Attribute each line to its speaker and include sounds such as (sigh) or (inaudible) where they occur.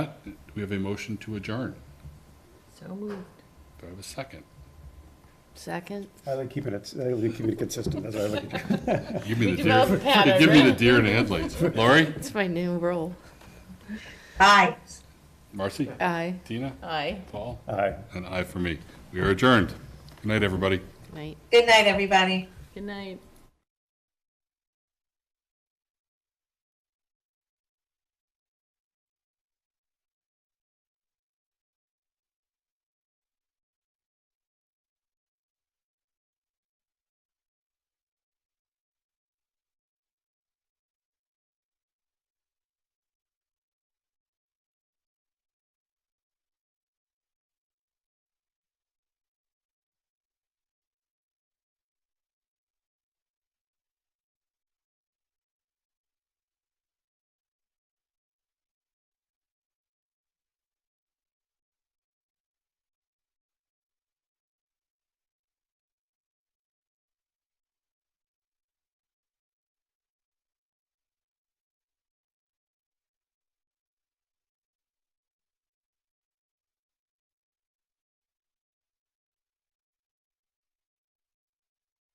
Speaker 1: We have a motion to adjourn.
Speaker 2: So moved.
Speaker 1: Do I have a
Speaker 2: (laughs)
Speaker 1: second?
Speaker 2: Second?
Speaker 3: I like keeping it, I like keeping it consistent, that's what I like. to do.
Speaker 1: Give me
Speaker 2: You
Speaker 1: the
Speaker 2: develop
Speaker 1: deer,
Speaker 2: a pattern,
Speaker 1: give me the
Speaker 2: right?
Speaker 1: deer in the headlights. Lori,
Speaker 2: It's my new role.
Speaker 4: Aye.
Speaker 1: Marcy,
Speaker 2: Aye.
Speaker 1: Tina,
Speaker 2: Aye.
Speaker 1: Paul,
Speaker 3: Aye.
Speaker 1: and I for me. We are adjourned. Good night, everybody.
Speaker 2: Night.
Speaker 4: Good night, everybody.
Speaker 2: Good night.